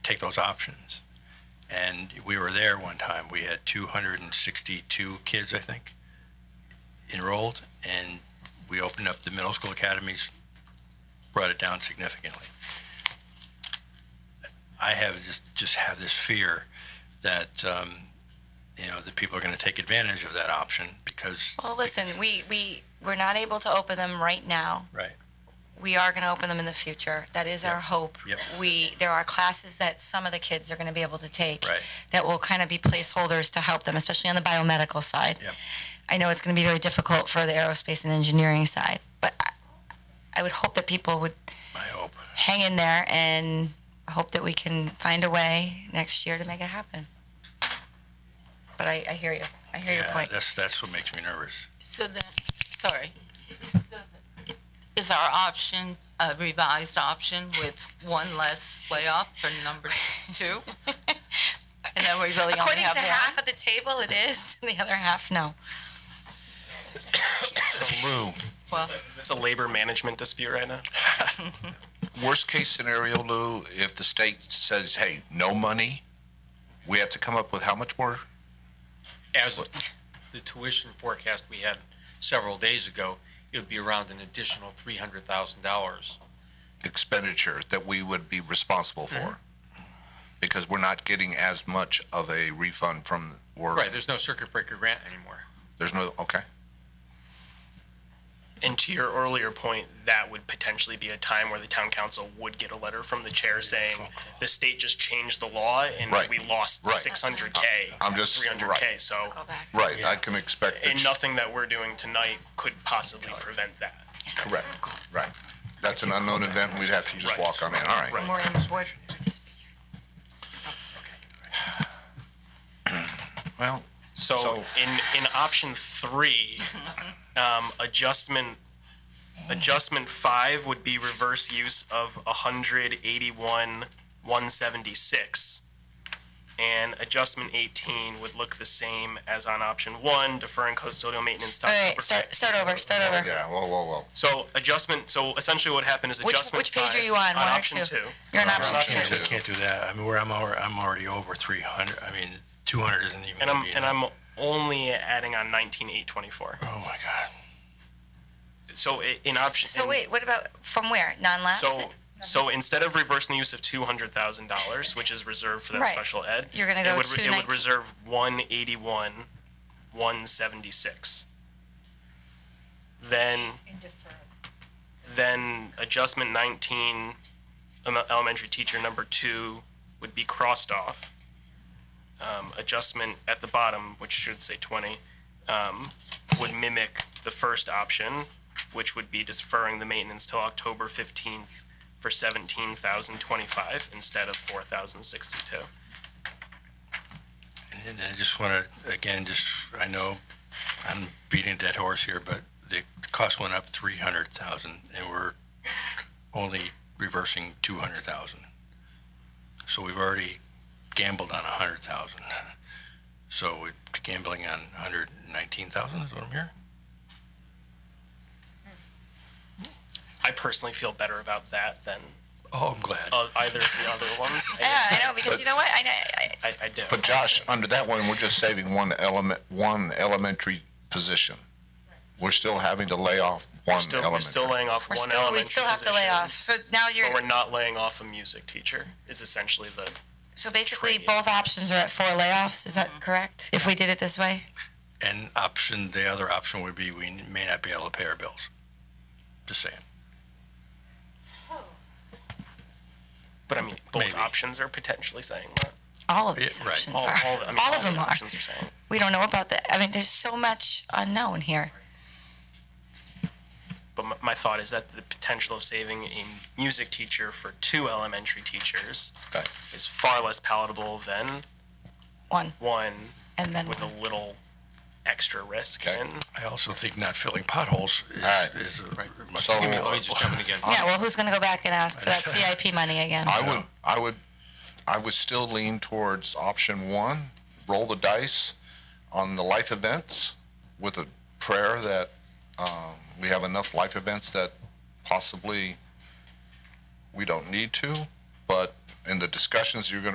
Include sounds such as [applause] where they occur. take those options. And we were there one time, we had 262 kids, I think, enrolled, and we opened up the middle school academies, brought it down significantly. I have just, just have this fear that, um, you know, that people are going to take advantage of that option because, Well, listen, we, we, we're not able to open them right now. right, We are going to open them in the future. That is our Yep. hope. Yep. We, there are classes that some of the kids are going to be able to take Right. that will kind of be placeholders to help them, especially on the biomedical side. Yep. I know it's going to be very difficult for the aerospace and engineering side, but I, I would hope that people would I hope. hang in there and hope that we can find a way next year to make it happen. But I, I hear you. I hear your Yeah, point. That's, that's what makes me nervous. So the, sorry. Is our option a revised option with one less layoff for number two? [laughs] And then we really only According to have half one? of the table, it is, [laughs] and the other half, no. Lou, Well, It's a labor management dispute right now. worst case scenario, Lou, if the state says, hey, no money, we have to come up with how much more? As the tuition forecast we had several days ago, it would be around an additional three hundred thousand dollars. expenditure that we would be responsible for. Mm-hmm. Because we're not getting as much of a refund from, or, Right, there's no circuit breaker grant anymore. there's no, okay. And to your earlier point, that would potentially be a time where the town council would get a letter from the chair saying the state just changed the law and Right. we lost Right. Uh, 600k, I'm just- 300k. right. So, Go back. Right, I can expect. and that- nothing that we're doing tonight could possibly prevent that. Correct, right. That's an unknown event, we'd have to just Right. walk on in, all right. More in the board. Well, So, So- in in option three, um, adjustment adjustment five would be reverse use of hundred eighty one one seventy six, and adjustment eighteen would look the same as on option one, deferring custodial maintenance. to All October right, start, 15th. start over, start over. yeah, whoa, whoa, whoa. So adjustment. So essentially, what happened is Which- adjustment. which page are five you on, one or option two? two. You're an I option can't, two. I can't do that. I mean, where I'm already, I'm already over 300. I mean, 200 isn't even. and gonna I'm be and enough. I'm only adding on nineteen eight twenty four. Oh my God. So i- in option. So in- wait, what about, from where? Non-lapse? So, so instead of reversing the use of two hundred thousand dollars, which is reserved for that Right. special ed, You're gonna it go would- to It 19. would reserve one eighty-one, one seventy-six. Then. Then adjustment nineteen, em- elementary teacher number two would be crossed off. Um, adjustment at the bottom, which should say twenty, um, would mimic the first option, which would be deferring the maintenance till October fifteenth for seventeen thousand twenty-five instead of four thousand sixty-two. And I just want to, again, just, I know I'm beating a dead horse here, but the cost went up 300,000 and we're only reversing 200,000. So we've already gambled on 100,000. [laughs] So we're gambling on 119,000 is what I'm hearing? I personally feel better about that than Oh, I'm glad. uh, either of the other ones. [laughs] Yeah, I know, because you know what, I, know- I, I, I do. But Josh, under that one, we're just saving one element, one elementary position. We're still having to lay off We're one still, we're still elementary. laying off we're one still, we elementary still have to lay position, off. So now you're, But we're not laying off a music teacher, is essentially the, so basically trade. both options are at four layoffs, is that correct? If we did it this way? And option, the other option would be we may not be able to pay our bills. Just saying. but I mean, both Maybe. options are potentially saying that. All of these Yeah, right. options All, are, all, the- I mean, all of the them are. Options are saying. We don't know about that. I mean, there's so much unknown here. But my, my thought is that the potential of saving a music teacher for two elementary teachers Right. is far less palatable than One, one and then with one. a little extra risk. Okay. And I also think not filling potholes is, Alright. is a much So- Let me just jump in again. Yeah, well, who's gonna go back and ask for [laughs] that CIP money again? I would, I would, I would still lean towards option one, roll the dice on the life events with a prayer that um, we have enough life events that possibly we don't need to, but in the discussions you're going to